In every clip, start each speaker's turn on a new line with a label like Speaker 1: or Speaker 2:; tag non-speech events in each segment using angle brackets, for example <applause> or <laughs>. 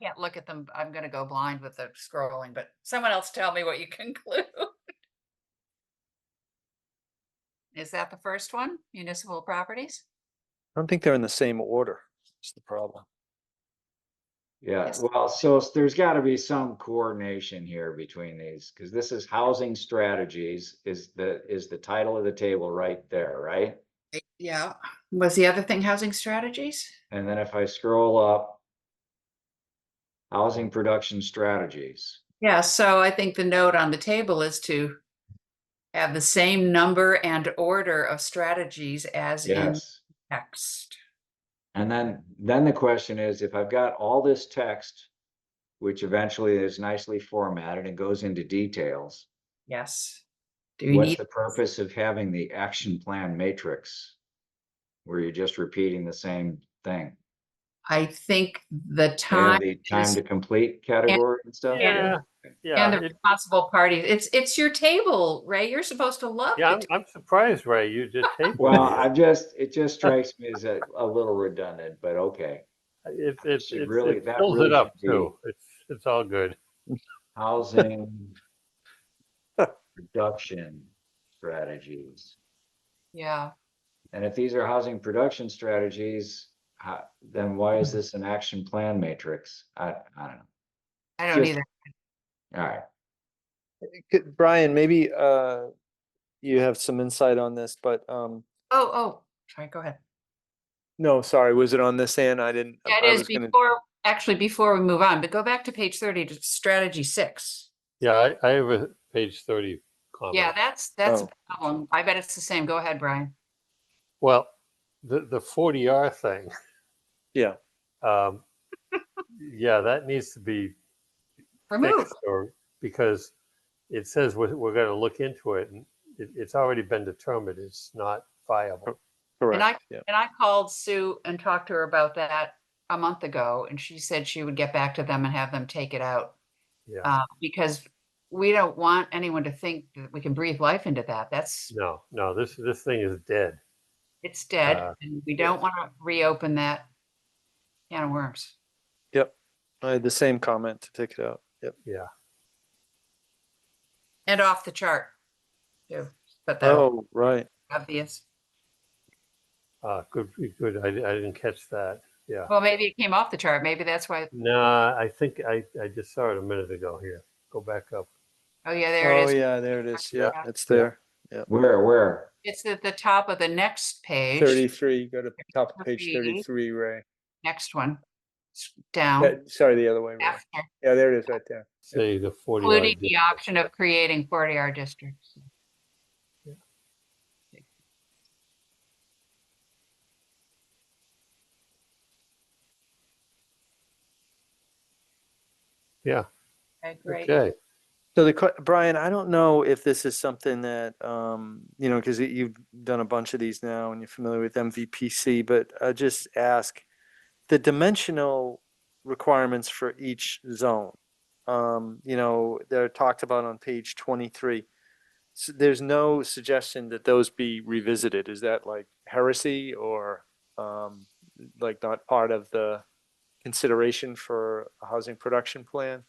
Speaker 1: can't look at them. I'm gonna go blind with the scrolling, but someone else tell me what you <laughs> conclude. Is that the first one? Municipal properties?
Speaker 2: I don't think they're in the same order. That's the problem.
Speaker 3: Yeah,
Speaker 1: Yes.
Speaker 3: well, so s- there's got to be some coordination here between these, because this is housing strategies is the, is the title of the table right there, right?
Speaker 1: Yeah. Was the other thing housing strategies?
Speaker 3: And then if I scroll up, housing production strategies.
Speaker 1: Yeah, so I think the note on the table is to have the same number and order of strategies as in
Speaker 3: Yes.
Speaker 1: text.
Speaker 3: And then, then the question is, if I've got all this text, which eventually is nicely formatted and goes into details,
Speaker 1: Yes. Do you
Speaker 3: what's
Speaker 1: need,
Speaker 3: the purpose of having the action plan matrix? Where you're just repeating the same thing?
Speaker 1: I think the
Speaker 3: They have
Speaker 1: time
Speaker 3: the Time
Speaker 1: is-
Speaker 3: to complete category and stuff?
Speaker 4: Yeah,
Speaker 1: and
Speaker 4: yeah,
Speaker 1: the
Speaker 4: it-
Speaker 1: responsible parties, it's, it's your table, Ray. You're supposed to love
Speaker 4: yeah, I'm,
Speaker 1: it.
Speaker 4: I'm surprised, Ray,
Speaker 3: <laughs>
Speaker 4: you just take.
Speaker 3: Well, I just, it just strikes me as a, a little redundant, but okay.
Speaker 4: It, it,
Speaker 3: should
Speaker 4: it
Speaker 3: really-
Speaker 4: it
Speaker 3: that
Speaker 4: fills
Speaker 3: really
Speaker 4: it up
Speaker 3: should be-
Speaker 4: too. It's, it's all good.
Speaker 1: <laughs>
Speaker 3: Housing. Production strategies.
Speaker 1: Yeah,
Speaker 3: And if these are housing production strategies, ho- then why is this an action plan matrix? I, I don't know.
Speaker 1: I don't
Speaker 3: Just-
Speaker 1: either.
Speaker 3: All right.
Speaker 2: Could- Brian, maybe uh, you have some insight on this, but um,
Speaker 1: Oh, oh, sorry, go ahead.
Speaker 2: no, sorry, was it on this end? I didn't.
Speaker 1: That
Speaker 2: I
Speaker 1: is
Speaker 2: was gonna-
Speaker 1: before, actually, before we move on, but go back to page thirty to strategy six.
Speaker 4: Yeah, I, I have a page thirty comment.
Speaker 1: Yeah, that's, that's a
Speaker 2: Oh.
Speaker 1: problem. I bet it's the same. Go ahead, Brian.
Speaker 4: Well, the, the forty R thing.
Speaker 2: Yeah.
Speaker 4: Um, yeah, that needs to be
Speaker 1: Remove.
Speaker 4: fixed or, because it says we're, we're gonna look into it and it, it's already been determined it's not viable.
Speaker 1: I-
Speaker 2: Correct, yeah.
Speaker 1: And I called Sue and talked to her about that a month ago, and she said she would get back to them and have them take it out.
Speaker 4: Yeah.
Speaker 1: Uh, because we don't want anyone to think that we can breathe life into that. That's,
Speaker 4: No, no, this, this thing is dead.
Speaker 1: it's dead,
Speaker 4: Uh,
Speaker 1: and we don't want to reopen that can of worms.
Speaker 2: I had the same comment to take it out. Yep.
Speaker 4: Yeah.
Speaker 1: And off the chart. too. But that's
Speaker 2: Oh, right.
Speaker 1: obvious.
Speaker 4: Uh, good, good. I, I didn't catch that. Yeah.
Speaker 1: Well, maybe it came off the chart. Maybe that's why,
Speaker 4: Nah, I think I, I just saw it a minute ago here. Go back up.
Speaker 1: oh yeah, there
Speaker 2: Oh,
Speaker 1: it is.
Speaker 2: yeah, there it is. Yeah,
Speaker 1: Yeah.
Speaker 2: it's there.
Speaker 3: Where, where?
Speaker 1: It's at the top of the next page.
Speaker 2: Thirty-three, go to top of page
Speaker 1: 33.
Speaker 2: thirty-three, Ray.
Speaker 1: Next one. S-
Speaker 2: Yeah,
Speaker 1: Down.
Speaker 2: Sorry, the other way. Ray.
Speaker 1: After.
Speaker 2: Yeah, there it is, right there.
Speaker 4: Say the forty. yard
Speaker 1: Including the
Speaker 4: distance.
Speaker 1: option of creating forty R districts.
Speaker 4: Yeah. Yeah.
Speaker 1: Okay, great.
Speaker 4: Okay,
Speaker 2: So the, que- Brian, I don't know if this is something that, um, you know, because you've done a bunch of these now and you're familiar with MVPC, but I just ask the dimensional requirements for each zone. Um, you know, they're talked about on page twenty-three. So there's no suggestion that those be revisited. Is that like heresy or, um, like not part of the consideration for a housing production plan?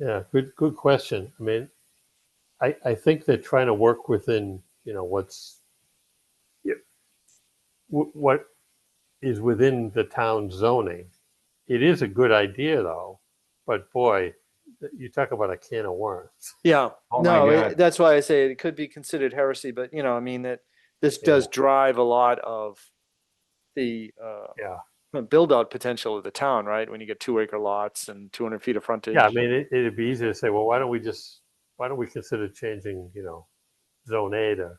Speaker 4: yeah, good, good question. I mean, I, I think they're trying to work within, you know, what's wh- what is within the town zoning. It is a good idea though, but boy, you talk about a can of worms.
Speaker 2: Yeah,
Speaker 3: Oh my
Speaker 2: no,
Speaker 3: God.
Speaker 2: it- that's why I say it could be considered heresy, but you know, I mean that this
Speaker 4: Yeah.
Speaker 2: does drive a lot of the uh,
Speaker 4: Yeah.
Speaker 2: build out potential of the town, right? When you get two acre lots and 200 feet of frontage.
Speaker 4: Yeah, I mean, it, it'd be easy to say, well, why don't we just, why don't we consider changing, you know, zone A to,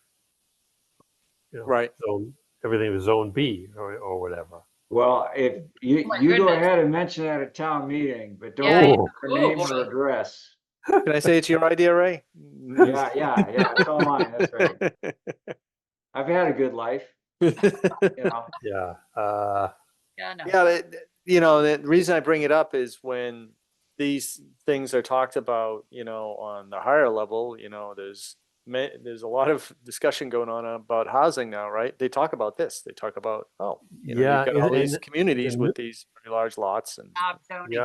Speaker 4: you know,
Speaker 2: Right.
Speaker 4: zone, everything was zone B or, or whatever.
Speaker 3: Well, if you,
Speaker 1: Oh my
Speaker 3: you go
Speaker 1: goodness.
Speaker 3: ahead and mention that at town meeting, but don't
Speaker 1: Yeah,
Speaker 3: leave
Speaker 4: yeah.
Speaker 3: her name
Speaker 1: Ooh.
Speaker 3: or address.
Speaker 1: <laughs>
Speaker 2: Can I say it's your idea, Ray?
Speaker 3: Yeah, yeah, yeah, it's all mine, that's right. I've had a good life, you know.
Speaker 4: Yeah. Uh,
Speaker 1: Yeah, no.
Speaker 2: Yeah, that- that- you know, the reason I bring it up is when these things are talked about, you know, on the higher level, you know, there's ma- there's a lot of discussion going on about housing now, right? They talk about this. They talk about, oh, you know,
Speaker 4: Yeah,
Speaker 2: you've
Speaker 4: and-
Speaker 2: got all
Speaker 4: and-
Speaker 2: these communities
Speaker 4: and-
Speaker 2: with these very large lots and.
Speaker 1: Knob zoning.
Speaker 4: Yeah.